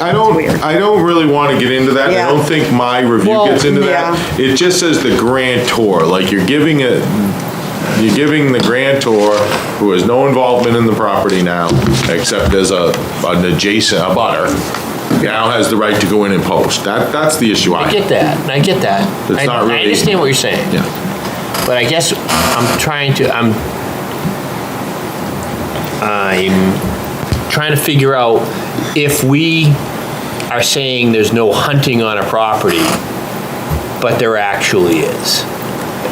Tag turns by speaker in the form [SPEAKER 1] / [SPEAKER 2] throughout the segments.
[SPEAKER 1] I don't,
[SPEAKER 2] weird.
[SPEAKER 1] I don't really want to get into that. I
[SPEAKER 2] Yeah.
[SPEAKER 1] don't think my review
[SPEAKER 2] Well,
[SPEAKER 1] gets into that. It just says the grantor, like you're giving it, you're giving the grantor, who has no involvement in the property now, except as a, an adjacent, a butter, now has the right to go in and post. That, that's the issue I
[SPEAKER 3] I get that, I get that.
[SPEAKER 1] It's
[SPEAKER 3] I-
[SPEAKER 1] not really-
[SPEAKER 3] I understand what you're saying.
[SPEAKER 1] Yeah,
[SPEAKER 3] But I guess I'm trying to, I'm, I'm trying to figure out if we are saying there's no hunting on a property, but there actually is.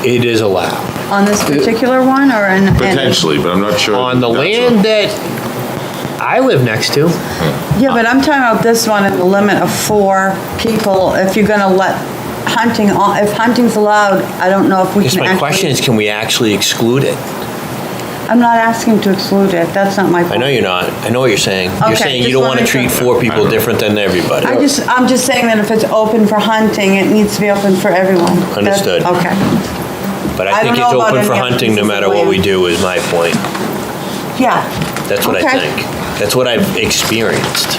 [SPEAKER 3] It is allowed.
[SPEAKER 2] On this particular one or in? in-
[SPEAKER 1] potentially, but I'm not sure.
[SPEAKER 3] On the
[SPEAKER 1] that's a-
[SPEAKER 3] land that I live next to,
[SPEAKER 2] Yeah, but I'm talking about this one at the limit of four people. If you're gonna let hunting, on- if hunting's allowed, I don't know if we
[SPEAKER 3] I guess
[SPEAKER 2] can
[SPEAKER 3] my
[SPEAKER 2] actually-
[SPEAKER 3] question is, can we actually exclude it?
[SPEAKER 2] I'm not asking to exclude it. That's not my
[SPEAKER 3] I
[SPEAKER 2] point.
[SPEAKER 3] know you're not, I know what you're saying.
[SPEAKER 2] Okay,
[SPEAKER 3] You're saying you
[SPEAKER 2] just
[SPEAKER 3] don't want to
[SPEAKER 2] wanted to-
[SPEAKER 3] treat four people different than everybody.
[SPEAKER 2] I just, I'm just saying that if it's open for hunting, it needs to be open for everyone. That's-
[SPEAKER 3] Understood.
[SPEAKER 2] Okay.
[SPEAKER 3] But
[SPEAKER 2] I
[SPEAKER 3] I think
[SPEAKER 2] don't
[SPEAKER 3] it's
[SPEAKER 2] know about
[SPEAKER 3] open for
[SPEAKER 2] any other
[SPEAKER 3] hunting no
[SPEAKER 2] pieces of
[SPEAKER 3] matter what we
[SPEAKER 2] land.
[SPEAKER 3] do is my point.
[SPEAKER 2] Yeah.
[SPEAKER 3] That's what I
[SPEAKER 2] Okay.
[SPEAKER 3] think. That's what I've experienced.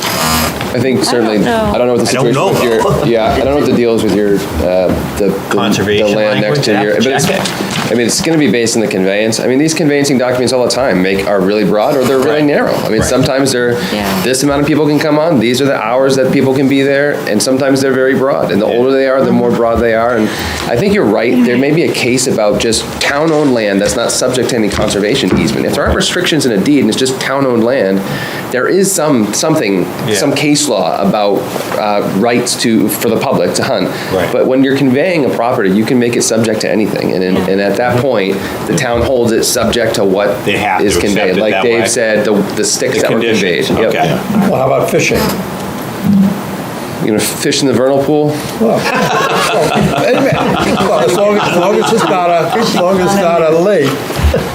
[SPEAKER 4] I think certainly,
[SPEAKER 2] know.
[SPEAKER 4] I don't know what the
[SPEAKER 3] I don't
[SPEAKER 4] situation
[SPEAKER 3] know,
[SPEAKER 4] with your,
[SPEAKER 3] though.
[SPEAKER 4] yeah, I don't know what the deal is with your, uh, the- the.
[SPEAKER 3] Conservation
[SPEAKER 4] The land next to
[SPEAKER 3] language,
[SPEAKER 4] your,
[SPEAKER 3] yeah,
[SPEAKER 4] but it's,
[SPEAKER 3] check
[SPEAKER 4] I mean, it's gonna be based on the conveyance. I mean, these conveyancing documents all the time make, are really broad or they're really
[SPEAKER 3] Right.
[SPEAKER 4] narrow. I mean,
[SPEAKER 3] Right.
[SPEAKER 4] sometimes they're, this amount of people can come on, these are the hours that people can be there, and sometimes they're very broad. And the older they are, the more broad they are. And I think you're right, there may be a case about just town-owned land that's not subject to any conservation easement. If there aren't restrictions in a deed and it's just town-owned land, there is some, something, some
[SPEAKER 3] Yeah.
[SPEAKER 4] case law about uh, rights to, for the public to hunt.
[SPEAKER 3] Right.
[SPEAKER 4] But when you're conveying a property, you can make it subject to anything. And, in- and at that point, the town holds it subject to what
[SPEAKER 3] Mm-hmm. They have
[SPEAKER 4] is
[SPEAKER 3] to accept
[SPEAKER 4] conveyed.
[SPEAKER 3] it
[SPEAKER 4] Like
[SPEAKER 3] that way.
[SPEAKER 4] Dave said, the, the sticks that were conveyed. Yep.
[SPEAKER 5] Well, how about fishing?
[SPEAKER 4] You know, fish in the vernal pool,
[SPEAKER 5] Well, As long, as long as it's not a, as long as it's not a lake,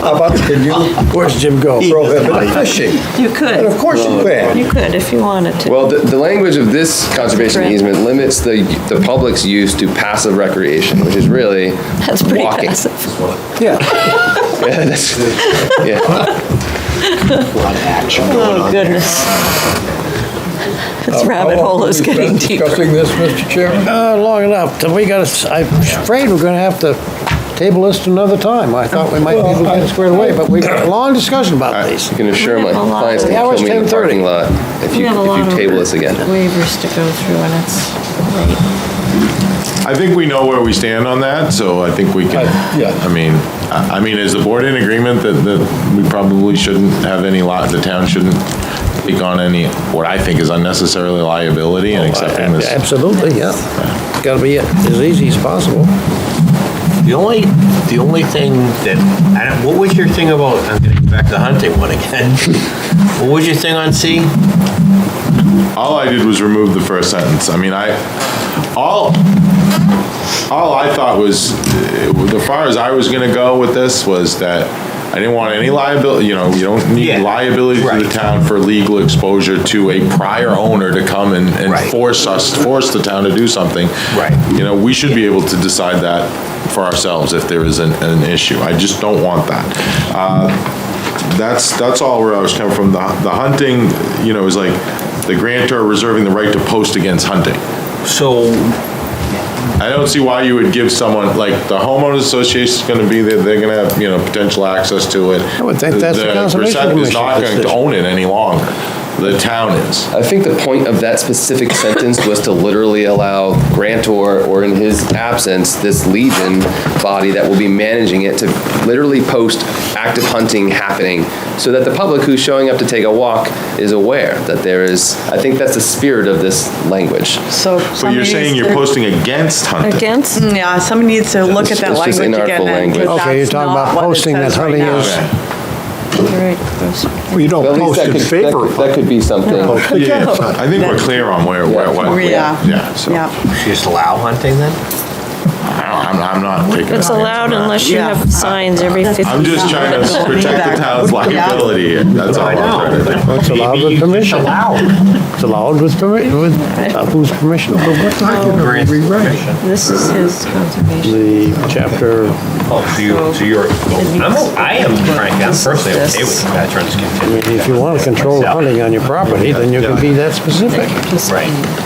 [SPEAKER 5] how about, can you, where's Jim go? Prohibit fishing.
[SPEAKER 6] You
[SPEAKER 5] And of
[SPEAKER 6] could,
[SPEAKER 5] course you
[SPEAKER 6] you
[SPEAKER 5] can.
[SPEAKER 6] could if you wanted to.
[SPEAKER 4] Well, the, the language of this conservation
[SPEAKER 6] Correct.
[SPEAKER 4] easement limits the, the public's use to passive recreation, which is really
[SPEAKER 6] That's pretty
[SPEAKER 4] walking.
[SPEAKER 6] passive.
[SPEAKER 5] Yeah.
[SPEAKER 4] Yeah, that's- yeah.
[SPEAKER 6] Oh, goodness. This rabbit
[SPEAKER 5] How
[SPEAKER 6] hole
[SPEAKER 5] often
[SPEAKER 6] is
[SPEAKER 5] we've been
[SPEAKER 6] getting deeper.
[SPEAKER 5] Discussing this, Mr. Chairman?
[SPEAKER 7] Uh, long enough, Then we gotta, s- I'm afraid we're gonna have to table this another time. I thought we might be able to get it squared away, but we got a long discussion about these.
[SPEAKER 4] I can assure
[SPEAKER 6] We
[SPEAKER 4] my
[SPEAKER 6] have a lot
[SPEAKER 4] clients
[SPEAKER 6] of-
[SPEAKER 4] they
[SPEAKER 7] The
[SPEAKER 4] will
[SPEAKER 7] hour's
[SPEAKER 4] kill me in the
[SPEAKER 7] 10:30.
[SPEAKER 4] parking lot if
[SPEAKER 6] We
[SPEAKER 4] you,
[SPEAKER 6] have a
[SPEAKER 4] if
[SPEAKER 6] lot
[SPEAKER 4] you
[SPEAKER 6] of
[SPEAKER 4] table this again.
[SPEAKER 6] Waivers to go through and it's late.
[SPEAKER 1] I think we know where we stand on that, so I think we can,
[SPEAKER 5] I- yeah.
[SPEAKER 1] I mean, I I mean, is the board in agreement that, that we probably shouldn't have any lot, the town shouldn't take on any, what I think is unnecessarily liability and accepting this?
[SPEAKER 7] Absolutely, yeah. Gotta be as easy as possible.
[SPEAKER 3] Uh, The only, the only thing that, I don't, what was your thing about, I'm gonna go back to the hunting one again. What was your thing on C?
[SPEAKER 1] All I did was remove the first sentence. I mean, I, all, all I thought was, uh, as far as I was gonna go with this was that I didn't want any liability, you know, you don't need
[SPEAKER 3] Yeah.
[SPEAKER 1] liability to the
[SPEAKER 3] Right.
[SPEAKER 1] town for legal exposure to a prior owner to come and, and
[SPEAKER 3] Right.
[SPEAKER 1] force us, force the town to do something.
[SPEAKER 3] Right.
[SPEAKER 1] You know, we should be able to decide that for ourselves if there is an, an issue. I just don't want that. Uh, That's, that's all where I was coming from. The, the hunting, you know, is like the grantor reserving the right to post against hunting.
[SPEAKER 3] So,
[SPEAKER 1] I don't see why you would give someone, like, the homeowners association's gonna be there, they're gonna have, you know, potential access to it.
[SPEAKER 7] I would think that's the Conservation
[SPEAKER 1] percent is
[SPEAKER 7] Commission's
[SPEAKER 1] not going to
[SPEAKER 7] decision.
[SPEAKER 1] own it any longer. The town is.
[SPEAKER 4] I think the point of that specific sentence was to literally allow grantor, or in his absence, this legion body that will be managing it to literally post active hunting happening so that the public who's showing up to take a walk is aware that there is, I think that's the spirit of this language.
[SPEAKER 2] So.
[SPEAKER 1] But you're
[SPEAKER 2] somebody
[SPEAKER 1] saying
[SPEAKER 2] needs
[SPEAKER 1] you're
[SPEAKER 2] to-
[SPEAKER 1] posting against hunting.
[SPEAKER 6] Against?
[SPEAKER 2] Yeah, somebody needs to look at
[SPEAKER 4] It's-
[SPEAKER 2] that
[SPEAKER 4] it's just
[SPEAKER 2] language again.
[SPEAKER 4] inartful
[SPEAKER 2] and-
[SPEAKER 4] language.
[SPEAKER 2] because
[SPEAKER 7] Okay, you're
[SPEAKER 2] that's
[SPEAKER 7] talking
[SPEAKER 2] not
[SPEAKER 7] about
[SPEAKER 2] what it
[SPEAKER 7] posting that
[SPEAKER 2] says right
[SPEAKER 7] hunting
[SPEAKER 2] now.
[SPEAKER 7] is,
[SPEAKER 1] Okay.
[SPEAKER 6] Right, those-
[SPEAKER 5] Well, you don't
[SPEAKER 4] But at least
[SPEAKER 5] post
[SPEAKER 4] that
[SPEAKER 5] in
[SPEAKER 4] could- that
[SPEAKER 5] favor
[SPEAKER 4] could,
[SPEAKER 5] of
[SPEAKER 4] that
[SPEAKER 5] it.
[SPEAKER 4] could be something.
[SPEAKER 1] Yeah, I think we're clear on where, where, what.
[SPEAKER 2] Yeah.
[SPEAKER 1] Yeah, so.
[SPEAKER 2] Yeah,
[SPEAKER 3] just allow hunting then?
[SPEAKER 1] I don't- I'm, I'm not taking.
[SPEAKER 6] It's
[SPEAKER 1] offense on
[SPEAKER 6] allowed
[SPEAKER 1] that.
[SPEAKER 6] unless you have signs every 50 feet.
[SPEAKER 1] I'm just trying to protect the town's liability here, that's all I'm trying to do.
[SPEAKER 7] It's allowed with permission. It's allowed with permission, with, uh, whose permission?
[SPEAKER 6] This is his conservation.
[SPEAKER 7] The chapter,
[SPEAKER 3] Oh, so you, so you're, I'm, I am, Frank, I'm personally okay with veterans continuing.
[SPEAKER 7] if you want to control hunting on your property, then you can be that specific.
[SPEAKER 3] Right.